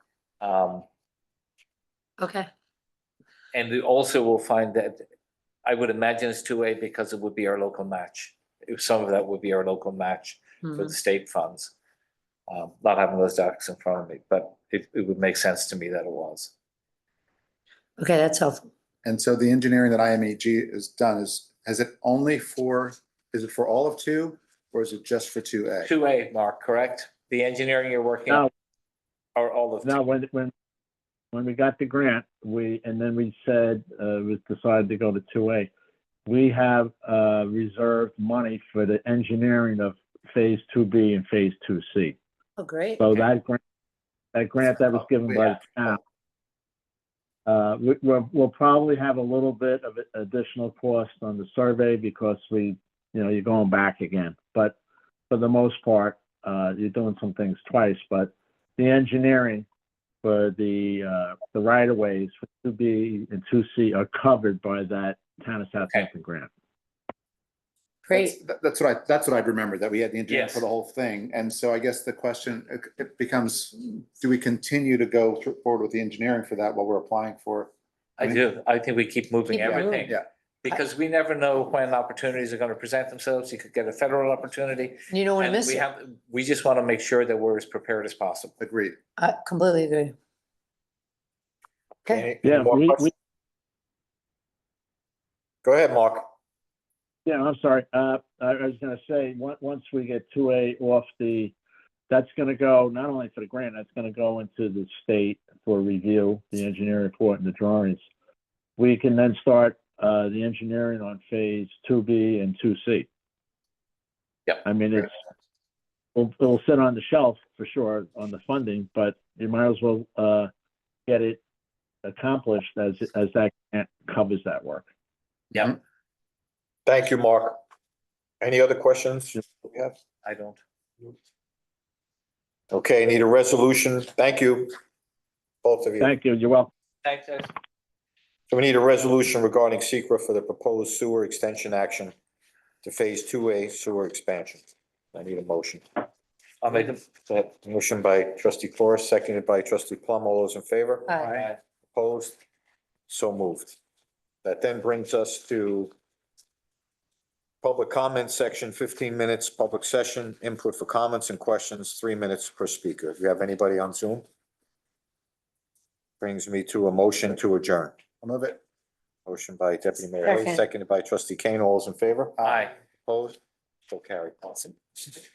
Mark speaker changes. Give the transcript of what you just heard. Speaker 1: Um,
Speaker 2: Okay,
Speaker 1: and we also will find that, I would imagine it's two-way because it would be our local match. If some of that would be our local match for
Speaker 2: hmm,
Speaker 1: the state funds. Um, not having those docs in front of me, but it, it would make sense to me that it was.
Speaker 2: okay, that's helpful.
Speaker 3: And so the engineering that IMAG has done is, has it only for, is it for all of two or is it just for two A?
Speaker 1: Two A, Mark, correct? The engineering you're working on
Speaker 4: No.
Speaker 1: are all of,
Speaker 4: No, when, when, when we got the grant, we, and then we said, uh, it was decided to go to two A. We have, uh, reserved money for the engineering of phase two B and phase two C.
Speaker 2: Oh, great.
Speaker 4: So that grant, that grant that was given by the town. Uh, we, we'll, we'll probably have a little bit of additional cost on the survey because we, you know, you're going back again. But for the most part, uh, you're doing some things twice, but the engineering for the, uh, the right of ways for two B and two C are covered by that town of Southampton grant.
Speaker 2: Great.
Speaker 3: That's- that- That's what I, that's what I'd remember, that we had the engineering
Speaker 1: Yes.
Speaker 3: for the whole thing. And so I guess the question, it- it becomes, do we continue to go thr- forward with the engineering for that while we're applying for?
Speaker 1: I do, I think we keep moving
Speaker 2: Keep moving.
Speaker 1: everything.
Speaker 3: Yeah.
Speaker 1: Because we never know when opportunities are gonna present themselves. You could get a federal opportunity.
Speaker 2: You don't want to
Speaker 1: And
Speaker 2: miss
Speaker 1: we
Speaker 2: it.
Speaker 1: have, we just wanna make sure that we're as prepared as possible.
Speaker 3: Agreed.
Speaker 2: I completely agree. Okay,
Speaker 1: Any- any
Speaker 4: Yeah,
Speaker 1: more
Speaker 4: we,
Speaker 1: questions?
Speaker 4: we,
Speaker 1: Go ahead, Mark.
Speaker 4: Yeah, I'm sorry. Uh, I I was gonna say, on- once we get two A off the, that's gonna go, not only for the grant, that's gonna go into the state for review, the engineering report and the drawings. We can then start, uh, the engineering on phase two B and two C.
Speaker 1: Yep.
Speaker 4: I mean, it's, it'll, it'll sit on the shelf for sure on the funding, but you might as well, uh, get it accomplished as, as that grant covers that work.
Speaker 5: Thank you, Mark. Any other questions? we have?
Speaker 1: I don't.
Speaker 5: Okay, need a resolution. Thank you, both of you.
Speaker 4: Thank you. You're welcome.
Speaker 1: Thanks, guys.
Speaker 5: So we need a resolution regarding secret for the proposed sewer extension action to Phase 2A sewer expansion. I need a motion.
Speaker 1: I'll make them.
Speaker 5: So that Motion by trustee Corus, seconded by trustee Plum. All those in favor?
Speaker 2: Aye.
Speaker 5: Opposed? So moved. That then brings us to public comment section, fifteen minutes, public session, input for comments and questions, three minutes per speaker. If you have anybody on Zoom? Brings me to a motion to adjourn.
Speaker 3: I'll move it.
Speaker 5: Motion by deputy mayor Hay,
Speaker 2: Second.
Speaker 5: seconded by trustee Kane. All those in favor?
Speaker 1: Aye.
Speaker 5: Opposed? So carried. Awesome.